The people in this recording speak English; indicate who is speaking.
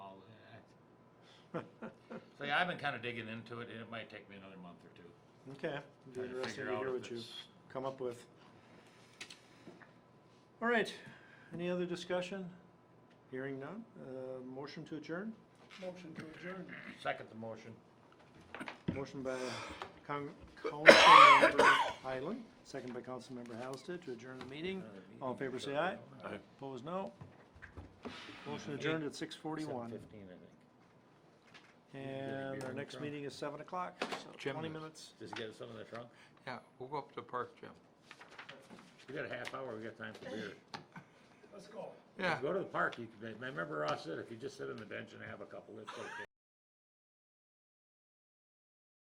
Speaker 1: So yeah, I've been kinda digging into it, and it might take me another month or two.
Speaker 2: Okay, it'd be
Speaker 1: trying
Speaker 2: interesting
Speaker 1: figure
Speaker 2: to
Speaker 1: out
Speaker 2: hear
Speaker 1: if
Speaker 2: what you
Speaker 1: it's-
Speaker 2: come up with. All right, any other discussion? Hearing none, uh, motion to adjourn?
Speaker 3: Motion to adjourn.
Speaker 1: Second the motion.
Speaker 2: Motion by Con- Councilmember Highland, second by Councilmember Halsted to adjourn the meeting.
Speaker 1: Uh,
Speaker 2: All in favor, say aye.
Speaker 4: Aye.
Speaker 2: Opposed, no. Motion adjourned at six forty-one,
Speaker 1: Seven fifteen, I think.
Speaker 2: and our next meeting is seven o'clock, so
Speaker 4: Jim,
Speaker 2: twenty
Speaker 4: this-
Speaker 2: minutes.
Speaker 1: Does he get some in the trunk?
Speaker 4: Yeah, we'll go up to the park, Jim.
Speaker 1: We got a half hour, we got time for beer.
Speaker 3: Let's go.
Speaker 4: Yeah.
Speaker 1: Go to the park, you can, I remember Ross said, if you just sit on the bench and have a couple, it's okay.